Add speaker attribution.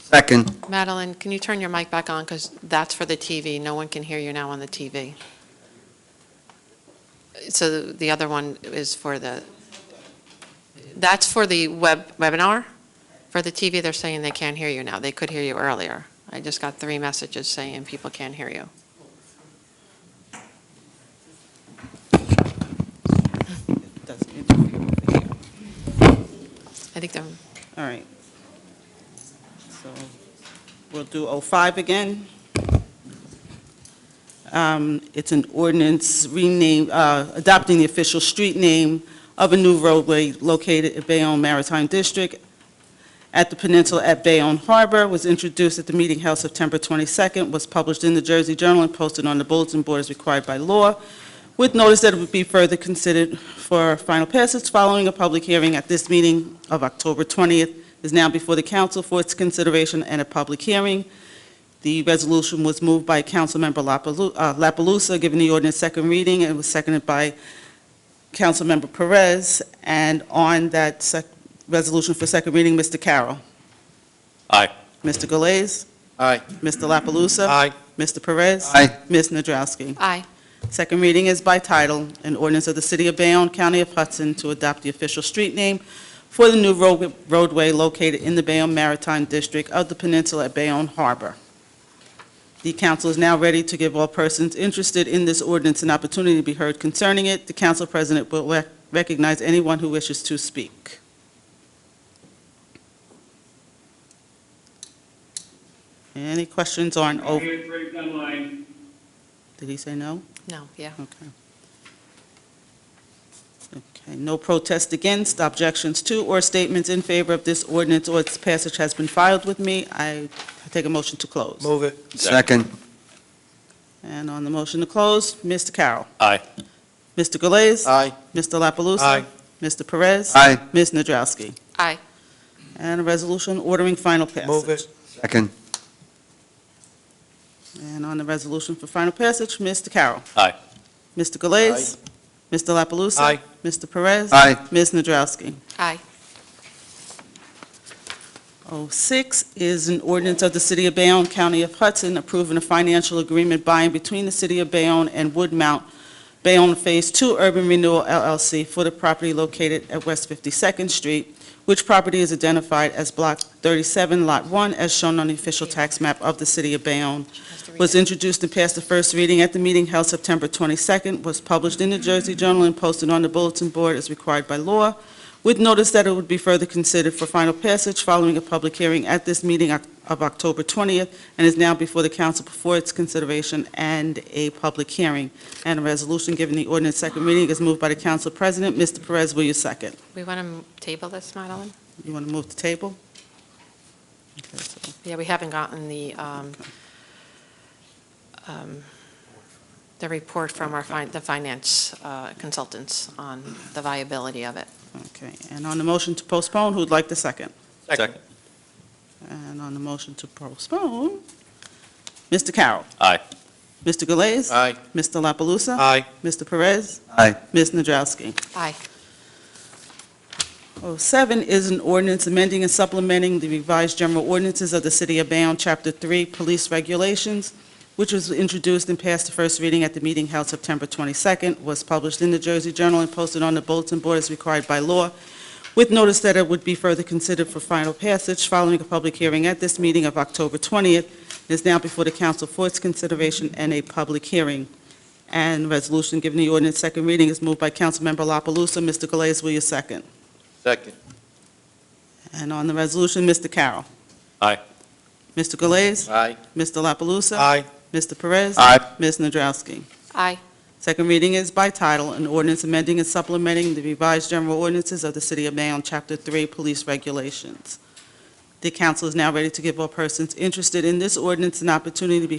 Speaker 1: Second.
Speaker 2: Madeline, can you turn your mic back on, because that's for the TV. No one can hear you now on the TV. So the other one is for the, that's for the web, webinar? For the TV, they're saying they can't hear you now. They could hear you earlier. I just got three messages saying people can't hear you.
Speaker 3: It doesn't interfere with the hearing.
Speaker 2: I think they're,
Speaker 3: All right. So we'll do 05 again. Um, It's an ordinance rename, uh, adopting the official street name of a new roadway located at Bayonne Maritime District at the peninsula at Bayonne Harbor, was introduced at the meeting held September 22nd, was published in the Jersey Journal and posted on the bulletin board as required by law, with notice that it would be further considered for final passage following a public hearing at this meeting of October 20th is now before the council for its consideration and a public hearing. The resolution was moved by Councilmember Lapalu- uh, La Palusa, given the ordinance second reading, and was seconded by Councilmember Perez. And on that sec- resolution for second reading, Mr. Carroll.
Speaker 4: Aye.
Speaker 3: Mr. Galais.
Speaker 1: Aye.
Speaker 3: Mr. La Palusa.
Speaker 4: Aye.
Speaker 3: Mr. Perez.
Speaker 1: Aye.
Speaker 3: Ms. Nadrowski.
Speaker 2: aye,
Speaker 3: Second reading is by title, an ordinance of the City of Bayonne, County of Hudson, to adopt the official street name for the new road- roadway located in the Bayonne Maritime District of the Peninsula at Bayonne Harbor. The council is now ready to give all persons interested in this ordinance an opportunity to be heard concerning it. The council president will rec- recognize anyone who wishes to speak. Any questions on,
Speaker 5: Right
Speaker 3: O-
Speaker 5: here, three gun line.
Speaker 3: did he say no?
Speaker 2: no, yeah.
Speaker 3: Okay. Okay, no protest against, objections to, or statements in favor of this ordinance or its passage has been filed with me. I take a motion to close.
Speaker 4: Move it.
Speaker 1: Second.
Speaker 3: And on the motion to close, Mr. Carroll.
Speaker 4: Aye.
Speaker 3: Mr. Galais.
Speaker 1: Aye.
Speaker 3: Mr. La Palusa?
Speaker 4: Aye.
Speaker 3: Mr. Perez.
Speaker 1: Aye.
Speaker 3: Ms. Nadrowski.
Speaker 2: Aye,
Speaker 3: And a resolution ordering final passage.
Speaker 4: Move it.
Speaker 1: Second.
Speaker 3: And on the resolution for final passage, Mr. Carroll.
Speaker 4: Aye.
Speaker 3: Mr. Galais. Mr. La Palusa?
Speaker 4: Aye.
Speaker 3: Mr. Perez.
Speaker 1: Aye.
Speaker 3: Ms. Nadrowski.
Speaker 2: aye,
Speaker 3: 06 Oh, is an ordinance of the City of Bayonne, County of Hudson, approving a financial agreement by and between the City of Bayonne and Woodmount Bayonne Phase 2 Urban Renewal LLC for the property located at West 52nd Street, which property is identified as Block 37, Lot 1, as shown on the official tax map of the City of Bayonne was introduced and passed the first reading at the meeting held September 22nd, was published in the Jersey Journal and posted on the bulletin board as required by law, with notice that it would be further considered for final passage following a public hearing at this meeting Oc- of October 20th, and is now before the council before its consideration and a public hearing. And a resolution giving the ordinance second reading is moved by the council president. Mr. Perez, will you second?
Speaker 2: We want to table this, Madeline?
Speaker 3: You want to move the table? Okay, so-
Speaker 2: Yeah, we haven't gotten the, um, um, the report from our, fin- the finance uh, consultants on the viability of it.
Speaker 3: Okay, and on the motion to postpone, who'd like the second?
Speaker 4: Second.
Speaker 3: And on the motion to postpone, Mr. Carroll.
Speaker 4: Aye.
Speaker 3: Mr. Galais.
Speaker 4: Aye.
Speaker 3: Mr. La Palusa.
Speaker 4: Aye.
Speaker 3: Mr. Perez.
Speaker 1: Aye.
Speaker 3: Ms. Nadrowski.
Speaker 2: Aye,
Speaker 3: 07 is an ordinance amending and supplementing the revised general ordinances of the City of Bayonne, Chapter 3, Police Regulations, which was introduced and passed the first reading at the meeting held September 22nd, was published in the Jersey Journal and posted on the bulletin board as required by law, with notice that it would be further considered for final passage following a public hearing at this meeting of October 20th, and is now before the council for its consideration and a public hearing. And resolution given the ordinance second reading is moved by Councilmember La Palusa. Mr. Galais, will you second?
Speaker 4: Second.
Speaker 3: And on the resolution, Mr. Carroll.
Speaker 4: Aye.
Speaker 3: Mr. Galais.
Speaker 4: Aye.
Speaker 3: Mr. La Palusa.
Speaker 4: Aye.
Speaker 3: Mr. Perez.
Speaker 1: Aye.
Speaker 3: Ms. Nadrowski.
Speaker 2: aye,
Speaker 3: Second reading is by title, an ordinance amending and supplementing the revised general ordinances of the City of Bayonne, Chapter 3, Police Regulations. The council is now ready to give all persons interested in this ordinance an opportunity to be